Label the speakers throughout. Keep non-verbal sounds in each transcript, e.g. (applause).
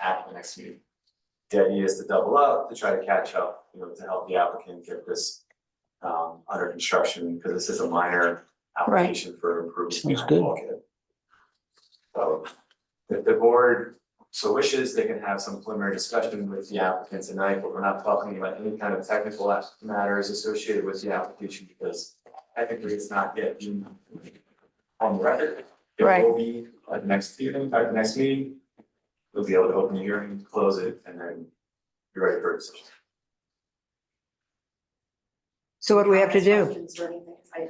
Speaker 1: at the next meeting. The idea is to double up, to try to catch up, you know, to help the applicant get this um under construction, because this is a minor application for improvement.
Speaker 2: Sounds
Speaker 1: behind
Speaker 2: good.
Speaker 1: bulkhead. So if the board so wishes, they can have some preliminary discussion with the applicant tonight, but we're not talking about any kind of technical as- matters associated with the application because technically it's not yet in- on the record.
Speaker 3: Right.
Speaker 1: It will be at the next evening, at the next meeting. We'll be able to open the hearing, close it, and then be ready for a decision.
Speaker 3: So what do we have to do?
Speaker 4: Questions or anything? I-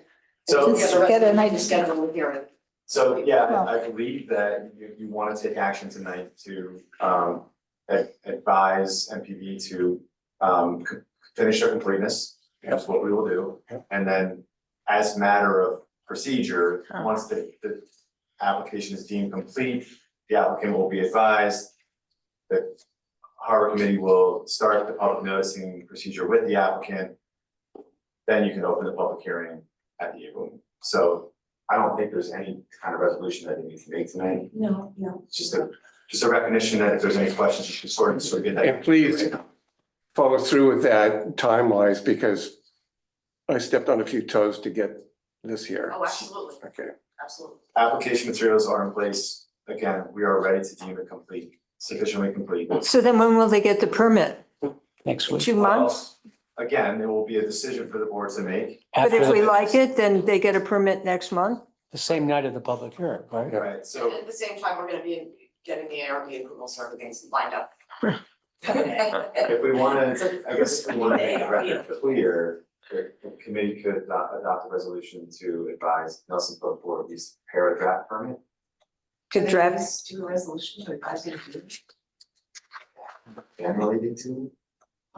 Speaker 1: So.
Speaker 4: Yeah, the rest
Speaker 3: Get
Speaker 4: of
Speaker 3: an
Speaker 4: it,
Speaker 3: idea.
Speaker 4: Schedule a hearing.
Speaker 1: So, yeah,
Speaker 3: Well-
Speaker 1: I I believe that you, you want to take action tonight to, um, ad- advise MPV to, um, c- finish their completeness. That's what we will do. And then as matter of procedure,
Speaker 3: Huh.
Speaker 1: once the, the application is deemed complete, the applicant will be advised that harbor committee will start the public noticing procedure with the applicant. Then you can open the public hearing at the evening. So I don't think there's any kind of resolution that you need to make tonight,
Speaker 4: No, no.
Speaker 1: It's just a, just a recognition that if there's any questions, you should sort of, sort of get that.
Speaker 5: And please- follow through with that time wise because I stepped on a few toes to get this here.
Speaker 4: Oh, absolutely,
Speaker 5: Okay,
Speaker 4: absolutely.
Speaker 1: Application materials are in place, again, we are ready to deem it complete, sufficiently complete.
Speaker 3: So then when will they get the permit?
Speaker 2: next week.
Speaker 3: Two months?
Speaker 1: Again, it will be a decision for the board to make,
Speaker 3: But if
Speaker 2: After
Speaker 3: we
Speaker 2: the-
Speaker 3: like it, then they get a permit next month?
Speaker 2: The same night of the public hearing, right?
Speaker 5: Yeah.
Speaker 1: right,
Speaker 4: And
Speaker 1: so,
Speaker 4: at the same time, we're gonna be getting the ARB approval, so everything's lined
Speaker 3: (laughs)
Speaker 4: up.
Speaker 1: if we wanna,
Speaker 4: So-
Speaker 1: I guess if we wanna make the record clear, the the committee could adopt, adopt a resolution to advise Nelson Pope Board at least prepare a draft permit.
Speaker 3: Could draft,
Speaker 4: Just Do a resolution to advise you to do.
Speaker 1: Generally, they do.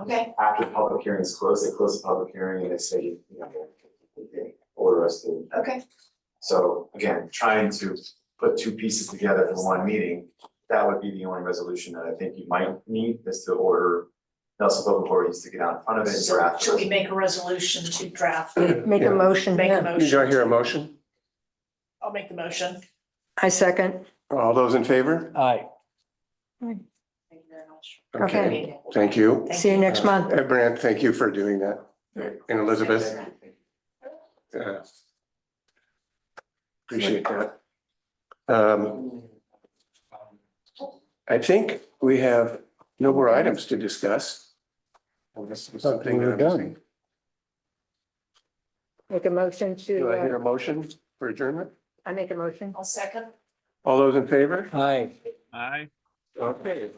Speaker 4: Okay,
Speaker 1: after the public hearing is closed, they close the public hearing and they say, you know, they order us to.
Speaker 4: okay.
Speaker 1: So again, trying to put two pieces together in one meeting, that would be the only resolution that I think you might need is to order Nelson Public Board needs to get out in front of it and
Speaker 6: So
Speaker 1: draft.
Speaker 6: should we make a resolution to draft,
Speaker 3: make a
Speaker 5: Yeah.
Speaker 3: motion,
Speaker 6: make a
Speaker 3: yeah.
Speaker 6: motion?
Speaker 5: do I hear a motion?
Speaker 6: I'll make the motion.
Speaker 3: I second.
Speaker 5: All those in favor?
Speaker 2: Aye.
Speaker 4: Thank you very much.
Speaker 3: Okay.
Speaker 5: Thank you.
Speaker 6: Thank
Speaker 3: See you next month.
Speaker 5: And Brant, thank you for doing that. And Elizabeth, uh, appreciate that. Um, I think we have no more items to discuss. Unless there's something that I'm missing.
Speaker 3: Make a motion
Speaker 5: Do
Speaker 3: to,
Speaker 5: I hear
Speaker 3: uh,
Speaker 5: a motion for adjournment?
Speaker 3: I make a motion.
Speaker 6: I'll second.
Speaker 5: All those in favor?
Speaker 2: Aye.
Speaker 5: Okay.